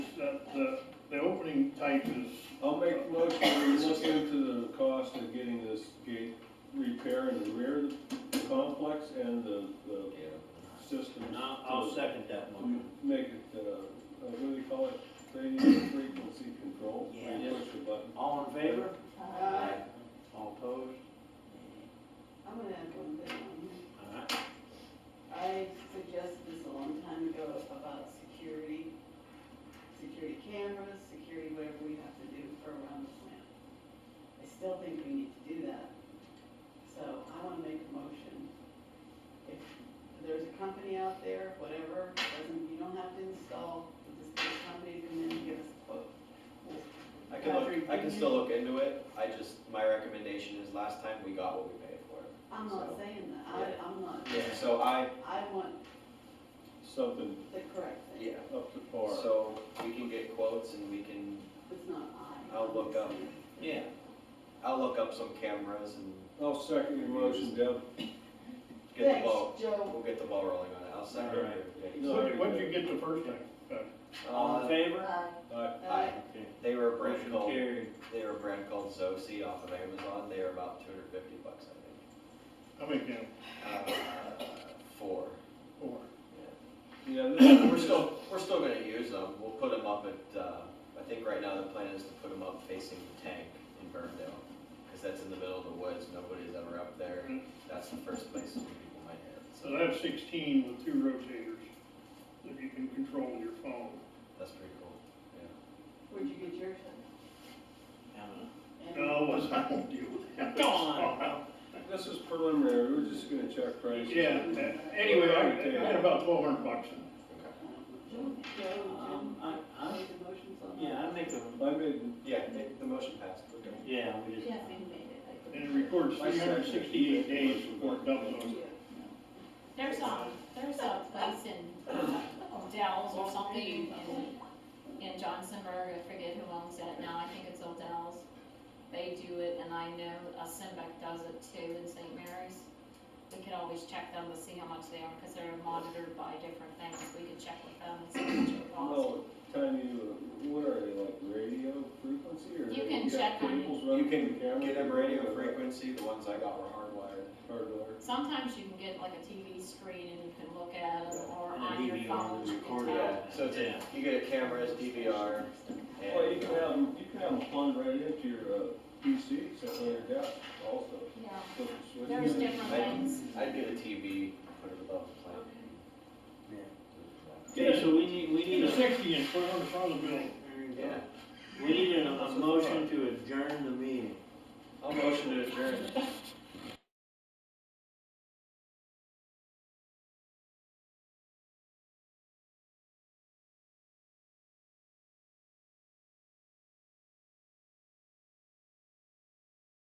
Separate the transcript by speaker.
Speaker 1: prices.
Speaker 2: I'll make a motion, we look into the cost of getting this gate repair in the rear of the complex and the, the system.
Speaker 1: And I'll, I'll second that motion.
Speaker 2: Make it, uh, uh, what do you call it, radio frequency control, where you
Speaker 1: Yeah.
Speaker 2: push a button.
Speaker 1: All in favor?
Speaker 3: Uh,
Speaker 1: All opposed?
Speaker 3: I'm gonna add one thing on.
Speaker 1: All right.
Speaker 3: I suggested this a long time ago about security, security cameras, security, whatever we have to do for around the plant. I still think we need to do that. So I wanna make a motion. If there's a company out there, whatever, doesn't, you don't have to install, just get a company to come in and give us a quote.
Speaker 4: I can look, I can still look into it, I just, my recommendation is last time we got what we paid for it.
Speaker 3: I'm not saying that, I, I'm not,
Speaker 4: Yeah, so I,
Speaker 3: I want
Speaker 2: Something
Speaker 3: the correct thing.
Speaker 4: yeah,
Speaker 2: up to par.
Speaker 4: so we can get quotes and we can,
Speaker 3: It's not I.
Speaker 4: I'll look up.
Speaker 1: Yeah.
Speaker 4: I'll look up some cameras and
Speaker 2: I'll second your motion, Deb.
Speaker 4: get the
Speaker 3: Thanks,
Speaker 4: ball,
Speaker 3: Joe.
Speaker 4: we'll get the ball rolling on it, I'll second
Speaker 1: All right.
Speaker 4: it. Yeah, you-
Speaker 2: No.
Speaker 5: When, when did you get the first thing? back?
Speaker 1: All in
Speaker 4: Uh,
Speaker 1: favor?
Speaker 2: Aye.
Speaker 4: Aye.
Speaker 1: Okay.
Speaker 4: They were a brand
Speaker 1: Motion
Speaker 4: called,
Speaker 1: carried.
Speaker 4: they were a brand called Zosi off of Amazon, they were about two hundred fifty bucks, I
Speaker 5: How many cans?
Speaker 4: think. Uh, Four.
Speaker 5: Four.
Speaker 2: Yeah,
Speaker 4: We're
Speaker 2: this is
Speaker 4: still, we're still gonna use them, we'll put them up at, uh, I think right now the plan is to put them up facing the tank in Burndale. Cause that's in the middle of the woods, nobody's ever up there,
Speaker 1: Mm-hmm.
Speaker 4: that's the first place where people might hit,
Speaker 5: So
Speaker 4: so
Speaker 5: I have sixteen with two rotators that you can control with your phone.
Speaker 4: that's pretty cool.
Speaker 3: Where'd you get yours at?
Speaker 5: No, I wasn't, I won't deal with that.
Speaker 1: Go on.
Speaker 2: this is preliminary, we're just gonna check prices.
Speaker 5: Yeah, anyway, I, I had about twelve hundred bucks in it.
Speaker 4: Okay.
Speaker 3: Joe,
Speaker 1: Um,
Speaker 5: Uh-huh.
Speaker 1: I,
Speaker 3: Joe,
Speaker 1: I,
Speaker 3: make the motions on that.
Speaker 1: yeah, I make a,
Speaker 2: I made,
Speaker 4: Yeah, the- the motion passed, we're good.
Speaker 1: yeah, we just,
Speaker 6: Jeff made it, I
Speaker 5: And
Speaker 6: couldn't.
Speaker 5: it records
Speaker 2: I
Speaker 5: three
Speaker 2: second it.
Speaker 5: hundred sixty-eight days before it doubles over.
Speaker 6: There's a, there's a place in uh, O'Dell's or something in, in Johnsonburg, I forget who owns that now, I think it's O'Dell's. They do it, and I know uh, Simbeck does it too in St. Mary's. We could always check them to see how much they are, because they're monitored by different things, we could check with them and see how much it costs.
Speaker 2: no, time you, what are they, like radio frequency or?
Speaker 6: You
Speaker 2: they
Speaker 6: can
Speaker 2: got
Speaker 6: check on it.
Speaker 2: cables running from
Speaker 4: You
Speaker 2: the
Speaker 4: can
Speaker 2: camera
Speaker 4: get them
Speaker 2: to-
Speaker 4: radio frequency, the ones I got were hardwired.
Speaker 2: Hardware.
Speaker 6: Sometimes you can get like a TV screen and you can look at it, or
Speaker 1: And a
Speaker 6: on your
Speaker 1: DVR
Speaker 6: phone, you can
Speaker 1: recorder.
Speaker 6: tell.
Speaker 4: Yeah, so it's, you get a camera, it's DVR,
Speaker 2: Well, you
Speaker 4: and
Speaker 2: can have, you can have them plugged right into your, uh, PC, except on your desk also.
Speaker 6: Yeah,
Speaker 2: Flip the switch.
Speaker 6: there's different things.
Speaker 4: I'd get a TV, put it above the plant.
Speaker 1: okay, so we need, we
Speaker 5: Get
Speaker 1: need
Speaker 5: a
Speaker 1: a,
Speaker 5: sixty and put it on the front of the building.
Speaker 4: Yeah,
Speaker 1: we need a, a motion to adjourn the meeting.
Speaker 4: I'll motion to adjourn.